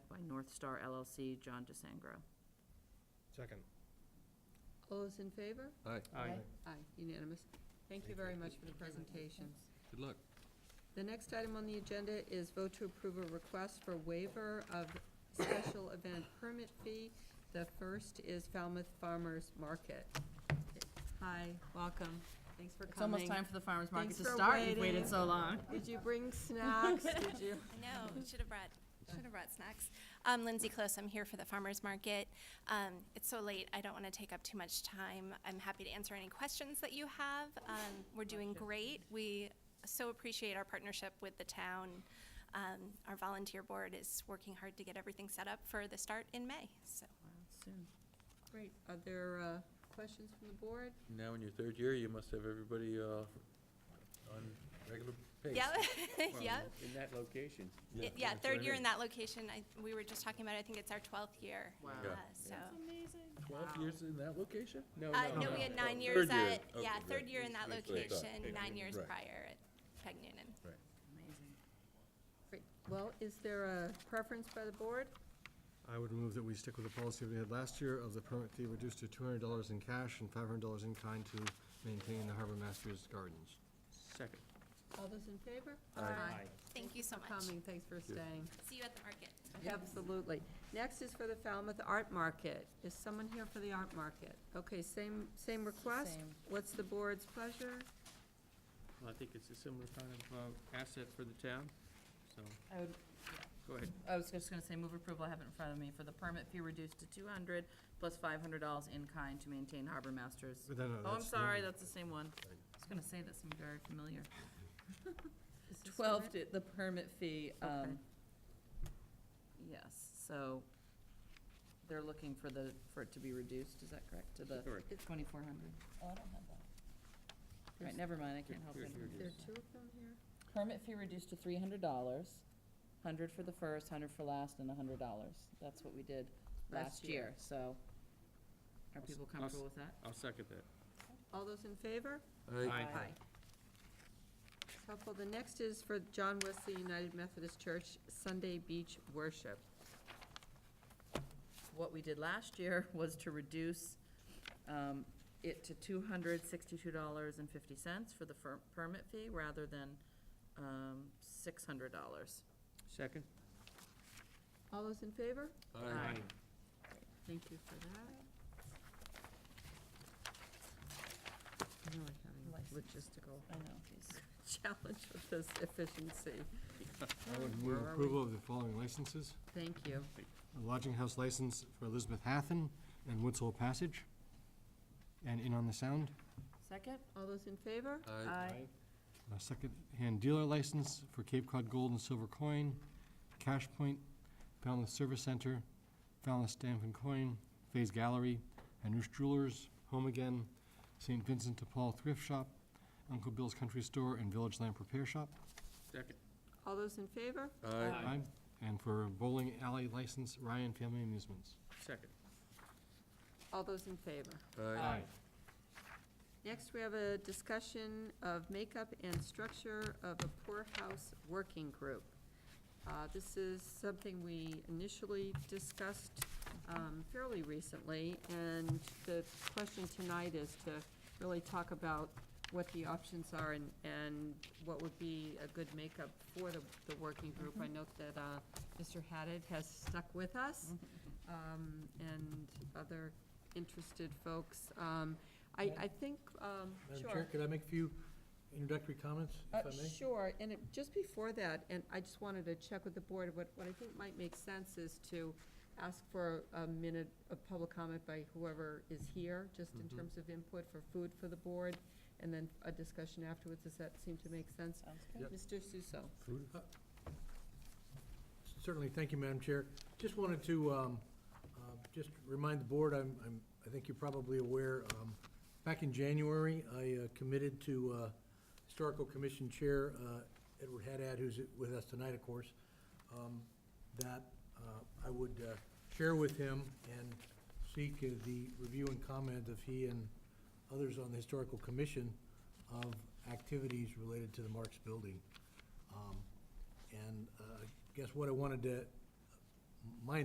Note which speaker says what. Speaker 1: North Star LLC, John DeSangro.
Speaker 2: Second.
Speaker 3: All those in favor?
Speaker 4: Aye,
Speaker 2: Aye.
Speaker 3: Aye, unanimous. Thank you
Speaker 2: Thank
Speaker 3: very
Speaker 2: you.
Speaker 3: much for the presentation.
Speaker 4: good luck.
Speaker 3: The next item on the agenda is vote to approve a request for waiver of special event permit fee. The first is Falmouth Farmers Market. Hi, welcome. Thanks for coming.
Speaker 1: It's almost time for the farmer's market
Speaker 3: Thanks
Speaker 1: to
Speaker 3: for
Speaker 1: start. You've
Speaker 3: waiting.
Speaker 1: waited so long.
Speaker 3: Did you bring snacks? Did you?
Speaker 5: I know, should have brought, should have brought snacks. I'm Lindsay Close, I'm here for the farmer's market. Um, it's so late, I don't want to take up too much time. I'm happy to answer any questions that you have. Um, we're doing great. We so appreciate our partnership with the town. Um, our volunteer board is working hard to get everything set up for the start in May, so.
Speaker 1: Soon.
Speaker 3: Great. Are there uh, questions from the board?
Speaker 4: Now in your third year, you must have everybody uh, on regular pace.
Speaker 5: Yeah, yeah.
Speaker 6: In that location.
Speaker 4: Yeah,
Speaker 5: It- Yeah,
Speaker 4: that's what
Speaker 5: third
Speaker 4: I
Speaker 5: year
Speaker 4: mean.
Speaker 5: in that location. I, we were just talking about, I think it's our twelfth year.
Speaker 1: Wow.
Speaker 5: Uh,
Speaker 4: Yeah.
Speaker 5: So.
Speaker 4: Twelve years in that location?
Speaker 6: Oh, No,
Speaker 5: Uh, no, we had nine years
Speaker 4: Third year,
Speaker 5: at,
Speaker 4: okay,
Speaker 5: yeah,
Speaker 4: good.
Speaker 5: third year in that
Speaker 4: That's what I thought.
Speaker 5: location, nine years
Speaker 4: Right.
Speaker 5: prior at Peg Noonan.
Speaker 1: Amazing.
Speaker 3: Great. Well, is there a preference by the board?
Speaker 2: I would move that we stick with the policy we had last year of the permit fee reduced to two hundred dollars in cash and five hundred dollars in kind to maintain the Harbor Masters Gardens.
Speaker 6: Second.
Speaker 3: All those in favor?
Speaker 4: Aye.
Speaker 5: Thank you so
Speaker 3: for
Speaker 5: much.
Speaker 3: Coming, thanks for staying.
Speaker 5: See you at the market.
Speaker 3: Absolutely. Next is for the Falmouth Art Market. Is someone here for the art market? Okay, same, same request?
Speaker 1: Same.
Speaker 3: What's the board's pleasure?
Speaker 6: Well, I think it's a similar kind of uh, asset for the town, so,
Speaker 1: I would,
Speaker 6: go ahead.
Speaker 1: I was just gonna say, move approval, I have it in front of me, for the permit fee reduced to two hundred plus five hundred dollars in kind to maintain Harbor Masters.
Speaker 2: But then, uh,
Speaker 1: Oh, I'm
Speaker 2: that's the
Speaker 1: sorry,
Speaker 2: other-
Speaker 1: that's the same one. I was gonna say that seemed very familiar.
Speaker 3: Is this
Speaker 1: Twelve,
Speaker 3: correct?
Speaker 1: di- the permit fee,
Speaker 3: Okay.
Speaker 1: um, yes, so they're looking for the, for it to be reduced, is that correct, to the
Speaker 6: Correct.
Speaker 1: twenty-four hundred? Oh, I don't have that. All right, never mind, I can't help
Speaker 6: Here,
Speaker 1: it.
Speaker 6: here it
Speaker 3: There are two of them here?
Speaker 1: Permit fee reduced to three hundred dollars, hundred for the first, hundred for last, and a hundred dollars. That's what we did
Speaker 3: Last
Speaker 1: last
Speaker 3: year.
Speaker 1: year, so. Are
Speaker 6: Us-
Speaker 1: people
Speaker 6: us-
Speaker 1: comfortable with that?
Speaker 6: I'll second that.
Speaker 3: All those in favor?
Speaker 4: Aye.
Speaker 1: Aye.
Speaker 3: It's Helpful. The next is for John Wesley United Methodist Church Sunday Beach Worship.
Speaker 1: What we did last year was to reduce um, it to two hundred sixty-two dollars and fifty cents for the fir- permit fee, rather than um, six hundred dollars.
Speaker 6: Second?
Speaker 3: All those in favor?
Speaker 4: Aye.
Speaker 3: Thank you for that. I know I'm having a logistical
Speaker 1: I know.
Speaker 3: challenge with this efficiency.
Speaker 2: I would
Speaker 3: Where
Speaker 2: move
Speaker 3: are we?
Speaker 2: approval of the following licenses.
Speaker 3: Thank you.
Speaker 2: A lodging house license for Elizabeth Hathen and Woods Hole Passage, and In on the Sound.
Speaker 1: Second?
Speaker 3: All those in favor?
Speaker 4: Aye.
Speaker 2: A second-hand dealer license for Cape Cod Gold and Silver Coin, Cash Point, Falmouth Service Center, Falmouth Stamp and Coin, Faze Gallery, Anush Jewelers, Home Again, St. Vincent de Paul Thrift Shop, Uncle Bill's Country Store, and Village Lamp Repair Shop.
Speaker 6: Second.
Speaker 3: All those in favor?
Speaker 4: Aye.
Speaker 2: And for bowling alley license, Ryan Family Amusements.
Speaker 6: Second.
Speaker 3: All those in favor?
Speaker 4: Aye.
Speaker 3: Next, we have a discussion of makeup and structure of a poorhouse working group. Uh, This is something we initially discussed um, fairly recently, and the question tonight is to really talk about what the options are and, and what would be a good makeup for the, the working group. I note that uh, Mr. Haddad has stuck with us, um, and other interested folks. Um, I, I think, um, sure.
Speaker 4: could I make a few introductory comments,
Speaker 3: Uh, Sure, and it- just before that, and I just wanted to check with the board, what, what I think might make sense is to ask for a minute of public comment by whoever is here, just in
Speaker 4: Mhm.
Speaker 3: terms of input for food for the board, and then a discussion afterwards, does that seem to make sense?
Speaker 1: Sounds
Speaker 4: good.
Speaker 3: Mr.
Speaker 4: Yep.
Speaker 3: Suso?
Speaker 7: Certainly, thank you, Madam Chair. Just wanted to, um, uh, just remind the board, I'm, I'm, I think you're probably aware, um, back in January, I uh, committed to, uh, Historical Commission Chair, uh, Edward Haddad, who's with us tonight, of course, um, that, uh, I would, uh, share with him and seek uh, the review and comment of he and others on the Historical Commission of activities related to the Marks Building. Um, and uh, I guess what I wanted to, my